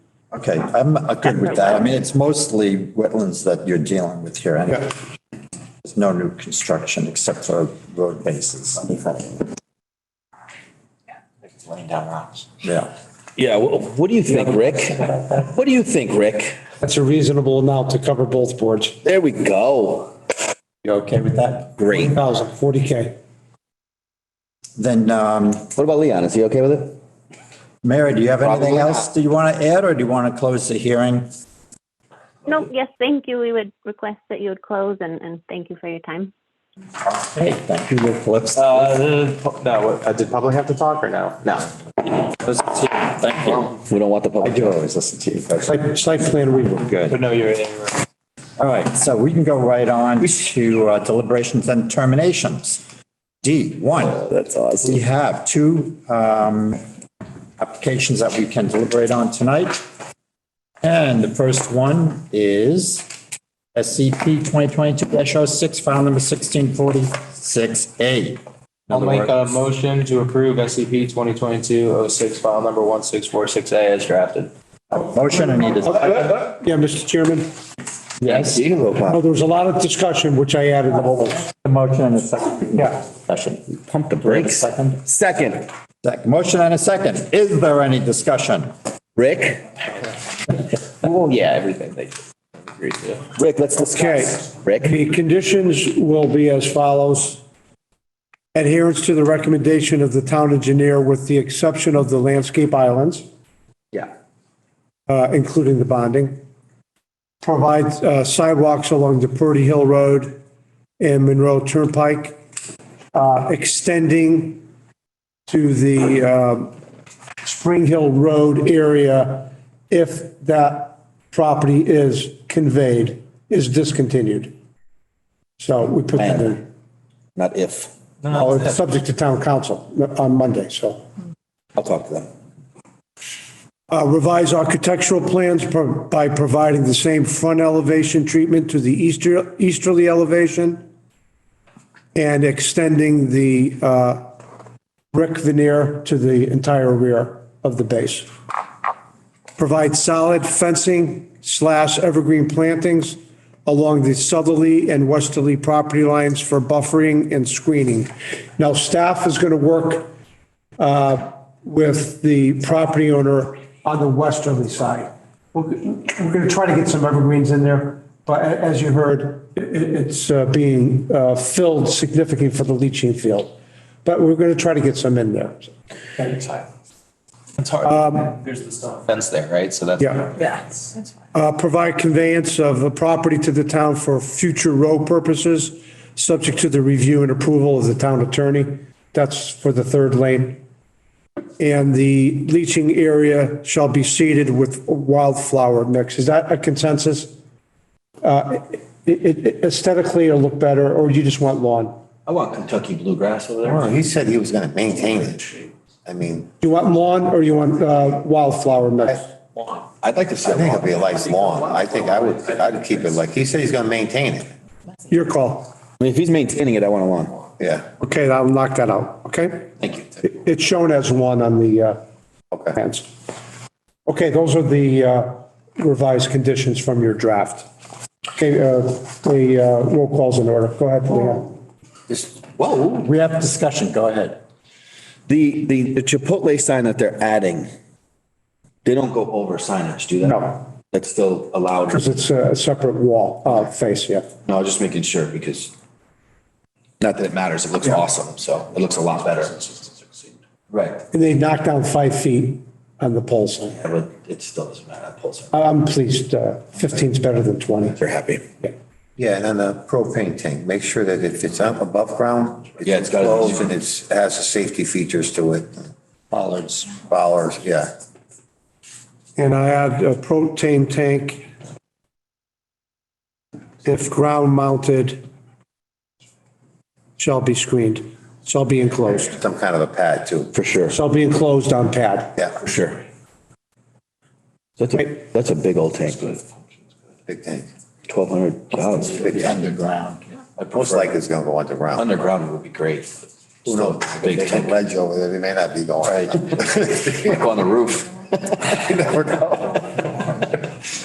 Okay, I'm uh, good with that. I mean, it's mostly wetlands that you're dealing with here. anyway. There's no new construction except for road bases. laying down rocks. Yeah. Yeah, wh- what do you think, Rick? What do you think, Rick? That's a reasonable amount to cover both boards. There we go. You okay with that? Great. Thousand, forty K. Then, um, What about Leon? Is he okay with it? Mary, do you have anything Probably not. else that you want to add or do you want to close the hearing? No, yes, thank you. We would request that you would close and, and thank you for your time. Hey, thank you, Rick. Let's- Uh, no, uh, did public have to talk or no? No. Thank you. We don't want the public. I do always listen to you. folks. Site, site plan review. Good. But no, you're in. All right, so we can go right on to uh, deliberations and terminations. D, one. That's awesome. We have two um, applications that we can deliberate on tonight. And the first one is SCP 2022-06, file number 1646A. I'll make a motion to approve E SCP 2022-06, file number 1646A as drafted. Motion, I need a, Yeah, Mr. Chairman, Yes. You can go, oh, Bob. there was a lot of discussion, which I added. a motion and a second. Yeah. Discussion. Pump the Wait a brakes. Second, Second, Sec- motion and a second. Is there any discussion? Rick? Well, yeah, everything they agreed to. Rick, let's discuss. Rick? The conditions will be as follows. Adherence to the recommendation of the town engineer with the exception of the landscape islands. Yeah. uh, including the bonding. Provide uh, sidewalks along the Purdy Hill Road and Monroe Turnpike, uh, extending to the um, Spring Hill Road area if that property is conveyed, is discontinued. So we put that in, Not if. Oh, it's subject to town council on Monday, so. I'll talk to them. Uh, Revise architectural plans pro- by providing the same front elevation treatment to the easter- easterly elevation and extending the uh, brick veneer to the entire rear of the base. Provide solid fencing slash evergreen plantings along the southerly and westerly property lines for buffering and screening. Now, staff is going to work with the property owner on the westerly side. We're going to try to get some evergreens in there, but a- as you heard, i- i- it's uh, being uh, filled significantly for the leaching field. But we're going to try to get some in there. It's Um, hard. There's the stone fence there, right? So that's. Yeah. Yeah, that's fine. Uh, Provide conveyance of a property to the town for future road purposes, subject to the review and approval of the town attorney. That's for the third lane. And the leaching area shall be seeded with wildflower mix. Is that a consensus? Uh, it- it- it- Aesthetically, it'll look better, or you just want lawn? I want Kentucky bluegrass over there. Well, he said he was gonna maintain it. I mean, You want lawn or you want uh, wildflower mix? I'd like to see. I think it'd be a nice lawn. I think I would, I'd keep it like, he said he's gonna maintain it. Your call. I mean, if he's maintaining it, I want a lawn. Yeah, Okay, I'll knock that out, okay? thank you. It- It's shown as one on the uh, Okay. plans. Okay, those are the uh, revised conditions from your draft. Okay, uh, the uh, roll call's in order. Go ahead, Leon. Whoa. We have discussion, go ahead. The, the the Chipotle sign that they're adding, they don't go over signage, do they? No. That's still allowed. Because it's a separate wall, uh, face, yeah. No, I was just making sure because not that it matters. It looks awesome. So it looks a lot better. Right. And they knocked down five feet on the pole sign. Yeah, But it still doesn't matter. That pulls I- I'm pleased, uh, 15's better than 20. They're happy. Yeah, and then the propane tank, make sure that if it's up above ground, Yeah, it's it's gotta- closed and it's, has the safety features to it. Bollards. Bollards, yeah. And I add a propane tank if ground mounted shall be screened, shall be enclosed, Some kind of a pad too. For sure. shall be enclosed on pad. Yeah, For sure. That's a, that's a big old tank, big tank. twelve hundred Oh, gallons. Big tank. Underground. Most likely it's gonna go underground. Underground would be great. Who knows? Big They got tank. ledge over there, they may not be going. Like on the roof. You never know.